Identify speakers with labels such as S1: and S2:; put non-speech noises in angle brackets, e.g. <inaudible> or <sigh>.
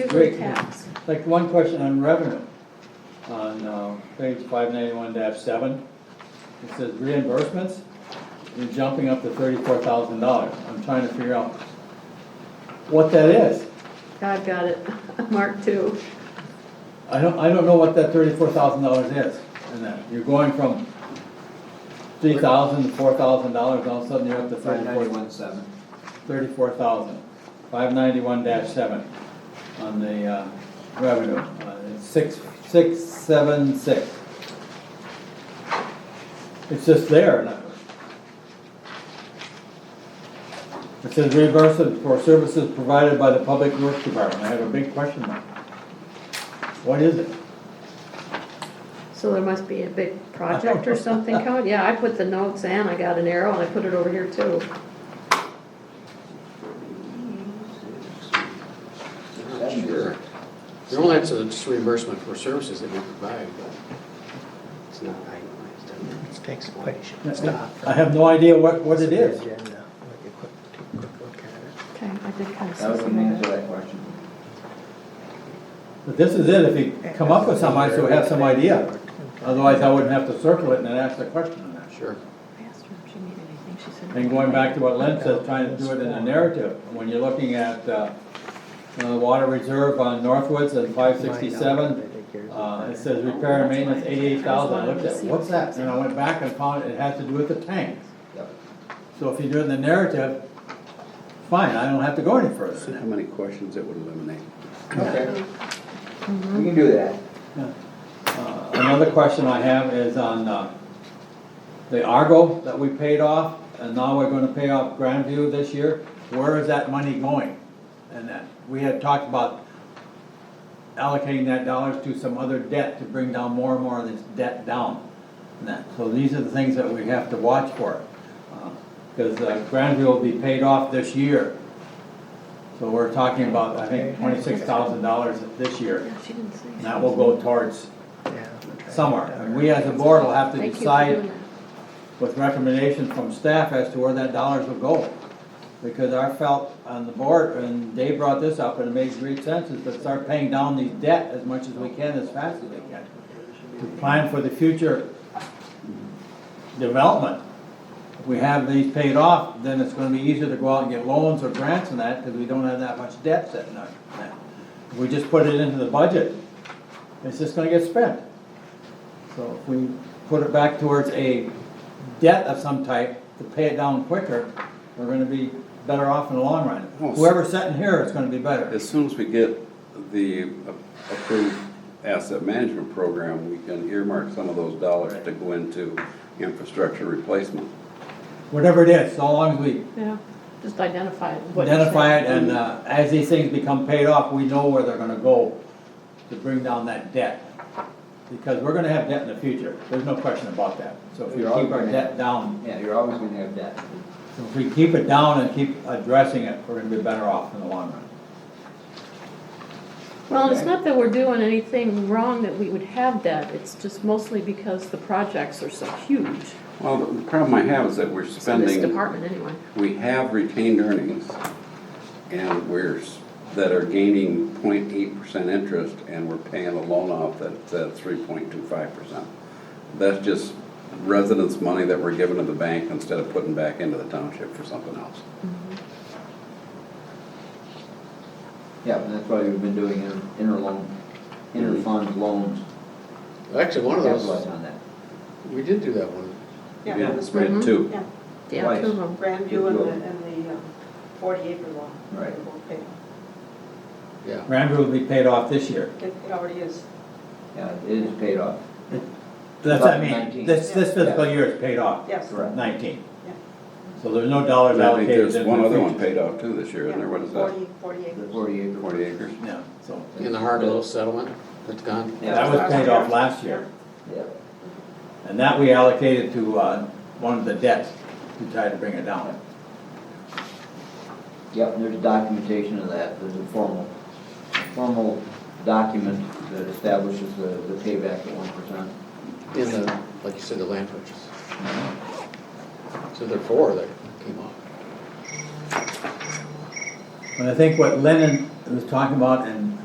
S1: Great.
S2: deferred tax.
S1: Like, one question on revenue, on uh, page five ninety-one seven, it says reimbursements, you're jumping up to thirty-four thousand dollars, I'm trying to figure out what that is.
S2: I've got it <laughs> marked too.
S1: I don't, I don't know what that thirty-four thousand dollars is, and that, you're going from three thousand to four thousand dollars, all of a sudden you're up to
S3: Five
S1: thirty-four
S3: ninety-one seven.
S1: thirty-four thousand, five ninety-one dash seven on the uh, revenue, uh, it's six, six, seven, six. It's just there. and I- It says reimbursement for services provided by the Public Works Department, I have a big question mark. What is it?
S2: So there must be a big project or something coming. Yeah, I put the notes and I got an arrow and I put it over here too.
S4: Sure. Normally it's a just reimbursement for services that we provide, but it's not itemized. doesn't it?
S5: Let's take some questions. Stop.
S1: I have no idea what, what it is.
S5: Agenda. Like a quick- take a quick look at
S2: Okay, I did kind of
S3: That was
S2: see
S3: the
S2: some
S3: main
S2: of that.
S3: July question.
S1: But this is it, if you
S5: it.
S1: come up with some, I still have some idea.
S5: Okay.
S1: Otherwise, I wouldn't have to circle it and then ask the question on that.
S4: Sure.
S2: I asked her if she needed anything. She said.
S1: And going back to what Lynn says, trying to do it in a narrative, when you're looking at, uh, uh, water reserve on Northwoods and five sixty-seven, uh, it says repair and maintenance eighty-eight thousand, I looked at, what's that? And I went back and found it had to do with the tanks.
S3: Yep.
S1: So if you do it in the narrative, fine, I don't have to go any
S6: See
S1: further.
S6: how many questions it would eliminate.
S2: Oh,
S3: Okay. We can do that.
S1: Uh, Another question I have is on, uh, the Argo that we paid off, and now we're gonna pay off Grandview this year, where is that money going? And that, we had talked about allocating that dollars to some other debt to bring down more and more of this debt down. And that, so these are the things that we have to watch for. Because Grandview will be paid off this year. So we're talking about, I think, twenty-six thousand dollars this year.
S2: Yeah, she didn't say.
S1: And that will go towards somewhere. And we as a board will have to
S2: Thank you for
S1: decide
S2: doing that.
S1: with recommendations from staff as to where that dollars will go. Because I felt on the board, and Dave brought this up, and it makes great sense, is to start paying down these debt as much as we can, as fast as we can. To plan for the future development. If we have these paid off, then it's gonna be easier to go out and get loans or grants and that, because we don't have that much debt sitting there. If we just put it into the budget, it's just gonna get spent. So if we put it back towards a debt of some type to pay it down quicker, we're gonna be better off in the long run.
S6: Well,
S1: Whoever's sitting here is gonna be better.
S6: As soon as we get the approved asset management program, we can earmark some of those dollars to go into infrastructure replacement.
S1: Whatever it is, so long as we
S2: Yeah, just identify it. what you said.
S1: identify it and, uh, as these things become paid off, we know where they're gonna go to bring down that debt. Because we're gonna have debt in the future, there's no question about that. So if we
S3: We're all
S1: keep our
S3: gonna
S1: debt
S3: have-
S1: down,
S3: Yeah, you're always gonna have that.
S1: so if we keep it down and keep addressing it, we're gonna be better off in the long run.
S2: Well, it's not that we're doing anything wrong that we would have that. It's just mostly because the projects are so huge.
S6: Well, the problem I have is that we're
S2: So this
S6: spending,
S2: department anyway.
S6: we have retained earnings and we're, s- that are gaining 0.8 percent interest and we're paying a loan off that's at three point two five percent. That's just residents' money that we're giving to the bank instead of putting back into the township for something else.
S3: Yeah, and that's why we've been doing inter, interloan, interfund loans,
S4: Actually, one of
S3: capitalize
S4: those,
S3: on that.
S4: we did do that one.
S7: Yeah.
S6: Yeah,
S2: Mm-hmm.
S6: it's made two.
S7: Yeah,
S2: Yeah, two of them.
S7: Grandview and the, and the um, forty acre law.
S3: Right.
S4: Yeah.
S1: Grandview will be paid off this year.
S7: It it already is.
S3: Yeah, it is paid off.
S1: That's, I
S3: 2019.
S1: mean, this, this fiscal year is paid off,
S7: Yes.
S3: Correct.
S1: nineteen.
S7: Yeah.
S1: So there's no dollars
S6: And I think
S1: allocated.
S6: there's
S1: in
S6: one
S1: the
S6: other one
S1: future.
S6: paid off too this year, isn't there? What is that?
S7: Forty, forty
S3: The
S7: acres.
S3: forty acre.
S6: Forty acres?
S1: Yeah, so,
S4: In the Harlow settlement, that's gone.
S3: Yeah.
S1: that was paid off last year,
S3: Yeah,
S1: and that we allocated to, uh, one of the debts to try to bring it down.
S3: Yep, and there's documentation of that, there's a formal, formal document that establishes the, the payback at one percent.
S4: In the, like you said, the land purchase. So there are four that came off.
S1: And I think what Lennon was talking about, and